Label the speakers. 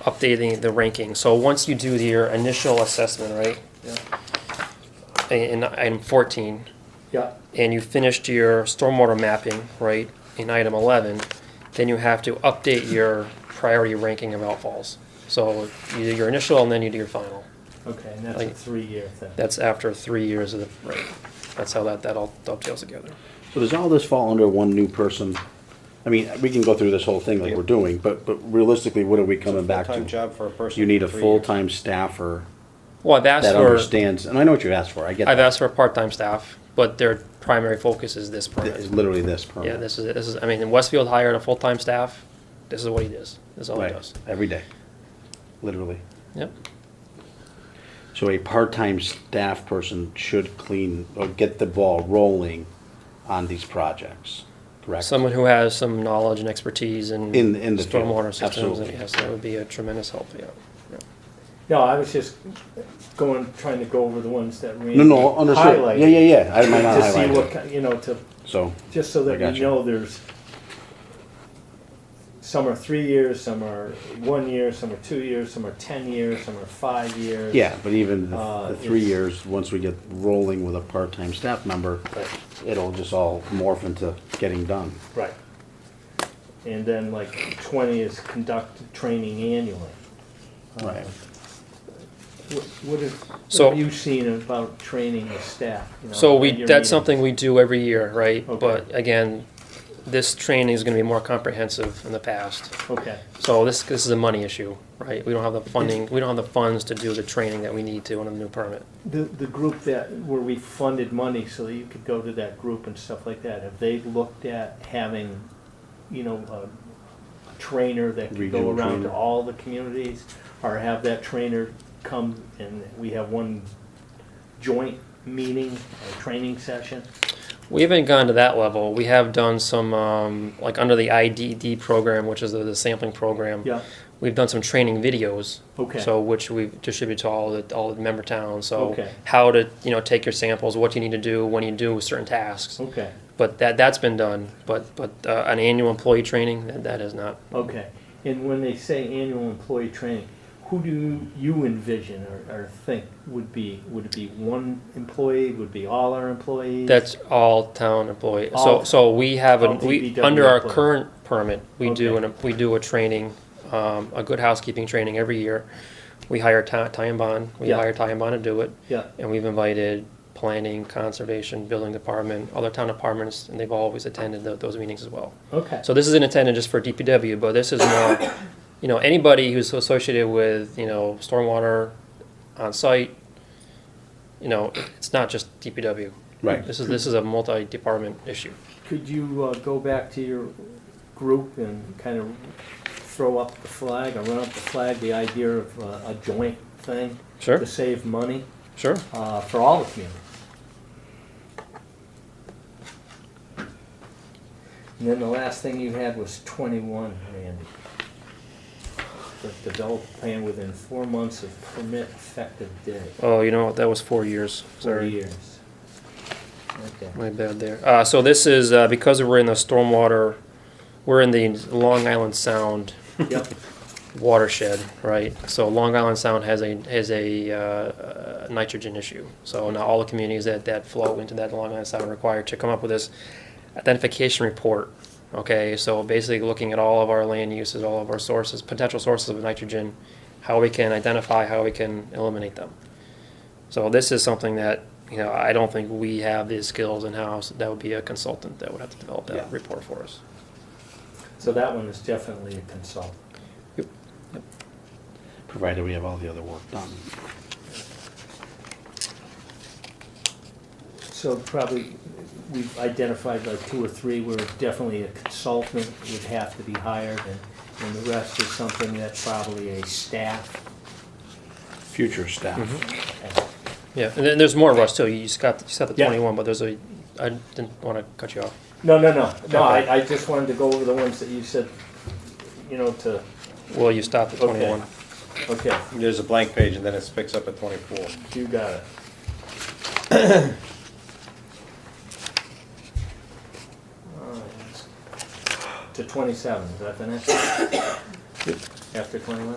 Speaker 1: updating the ranking. So once you do your initial assessment, right,
Speaker 2: Yeah.
Speaker 1: in in item 14,
Speaker 2: Yeah.
Speaker 1: and you finished your stormwater mapping, right, in item 11, then you have to update your priority ranking of outfalls. So you do your initial and then you do your final.
Speaker 2: Okay, and that's a
Speaker 1: Like-
Speaker 2: three-year thing.
Speaker 1: That's after three years of the, right, that's how that, that all dovetails together.
Speaker 3: So does all this fall under one new person? I mean, we can go through this whole thing like we're doing, but, but realistically, what are we coming back
Speaker 4: Full-time
Speaker 3: to?
Speaker 4: job for a person.
Speaker 3: You need a
Speaker 4: for three
Speaker 3: full-time staffer
Speaker 1: Well, I've asked
Speaker 3: that
Speaker 1: for,
Speaker 3: understands, and I know what you asked for, I get
Speaker 1: I've
Speaker 3: that.
Speaker 1: asked for a part-time staff, but their primary focus is this permit.
Speaker 3: It's literally this
Speaker 1: Yeah,
Speaker 3: permit.
Speaker 1: this is, this is, I mean, Westfield hired a full-time staff, this is what he does, this is all he
Speaker 3: Right,
Speaker 1: does.
Speaker 3: every day, literally.
Speaker 1: Yep,
Speaker 3: So a part-time staff person should clean or get the ball rolling on these projects, correct?
Speaker 1: someone who has some knowledge and expertise in.
Speaker 3: In- in the field,
Speaker 1: Stormwater systems,
Speaker 3: absolutely.
Speaker 1: yes, that would be a tremendous help, yeah. yeah.
Speaker 2: No, I was just going, trying to go over the ones that Randy
Speaker 3: No, no, understood.
Speaker 2: highlighted.
Speaker 3: Yeah, yeah, yeah. I might not
Speaker 2: To see what,
Speaker 3: highlight it.
Speaker 2: ki- you know, to,
Speaker 3: So,
Speaker 2: just so
Speaker 3: I
Speaker 2: that we
Speaker 3: gotcha.
Speaker 2: know there's, some are three years, some are one year, some are two years, some are ten years, some are five years.
Speaker 3: yeah, but even the-
Speaker 2: Uh,
Speaker 3: the three
Speaker 2: it's-
Speaker 3: years, once we get rolling with a part-time staff member,
Speaker 2: Right.
Speaker 3: it'll just all morph into getting done.
Speaker 2: Right. And then like twenty is conduct training annually.
Speaker 3: Right.
Speaker 2: What, what is,
Speaker 1: So-
Speaker 2: what have you seen about training the staff? you know,
Speaker 1: So
Speaker 2: at
Speaker 1: we,
Speaker 2: your
Speaker 1: that's
Speaker 2: meetings?
Speaker 1: something we do every year, right?
Speaker 2: Okay.
Speaker 1: But again, this training is gonna be more comprehensive than the past.
Speaker 2: Okay,
Speaker 1: So this, this is a money issue, right? We don't have the funding, we don't have the funds to do the training that we need to on a new permit.
Speaker 2: the, the group that, where we funded money so that you could go to that group and stuff like that, have they looked at having, you know, a trainer that could go
Speaker 3: Regional
Speaker 2: around to
Speaker 3: trainer.
Speaker 2: all the communities? Or have that trainer come and we have one joint meeting or training session?
Speaker 1: We haven't gone to that level. We have done some, um, like under the IDD program, which is the, the sampling program.
Speaker 2: Yeah,
Speaker 1: We've done some training videos.
Speaker 2: Okay.
Speaker 1: So which we distribute to all the all the member towns. So
Speaker 2: Okay.
Speaker 1: how to you know take your samples, what you need to do when you do certain tasks.
Speaker 2: okay.
Speaker 1: But that that's been done. But but uh, an annual employee training that that is not.
Speaker 2: Okay, and when they say annual employee training, who do you envision or, or think would be, would it be one employee, would it be all our employees?
Speaker 1: That's all town employee. so
Speaker 2: All-
Speaker 1: so we have a
Speaker 2: all
Speaker 1: we
Speaker 2: DPW
Speaker 1: under our
Speaker 2: employees.
Speaker 1: current permit we do
Speaker 2: Okay.
Speaker 1: an, we do a training, um, a good housekeeping training every year. We hire Ty, Ty and Bond. We
Speaker 2: Yeah.
Speaker 1: hire Ty and Bond to do it.
Speaker 2: Yeah,
Speaker 1: And we've invited planning, conservation, building department, other town departments, and they've always attended tho- those meetings as well.
Speaker 2: okay,
Speaker 1: So this isn't intended just for DPW, but this is more, you know, anybody who's associated with, you know, stormwater on site. You know, it's not just DPW.
Speaker 3: Right.
Speaker 1: This is, this is a multi-department issue.
Speaker 2: could you, uh, go back to your group and kind of throw up the flag or run up the flag, the idea of uh, a joint thing?
Speaker 1: Sure.
Speaker 2: To save money,
Speaker 1: Sure.
Speaker 2: uh, for all the communities. And then the last thing you had was twenty-one, Randy. The develop plan within four months of permit effective date,
Speaker 1: Oh, you know, what? that was four years.
Speaker 2: four
Speaker 1: Sorry.
Speaker 2: years. Okay.
Speaker 1: My bad there. Uh, so this is, uh, because we're in the stormwater, we're in the Long Island Sound
Speaker 2: Yep,
Speaker 1: watershed, right? So Long Island Sound has a, has a uh, nitrogen issue. So now all the communities that, that flow into that Long Island Sound are required to come up with this identification report. Okay, so basically looking at all of our land uses, all of our sources, potential sources of nitrogen, how we can identify, how we can eliminate them. So this is something that, you know, I don't think we have the skills in-house. That would be a consultant that would have to develop
Speaker 3: Yeah.
Speaker 1: that report for us.
Speaker 2: so that one is definitely a consult.
Speaker 3: provided we have all the other work done.
Speaker 2: So probably, we've identified like two or three where definitely a consultant would have to be hired, and, and the rest is something that's probably a staff.
Speaker 3: Future staff.
Speaker 1: Yeah, and then there's more, Russ, too. You just got, you said the
Speaker 2: Yeah.
Speaker 1: twenty-one, but there's a, I didn't wanna cut you off.
Speaker 2: No, no, no, no, I, I just wanted to go over the ones that you said, you know, to,
Speaker 1: Well, you stopped at
Speaker 2: Okay.
Speaker 1: twenty-one.
Speaker 2: okay,
Speaker 4: years. There's a blank page and then it picks up at twenty-four.
Speaker 2: you got it. To twenty-seven, is that the next? After twenty-one?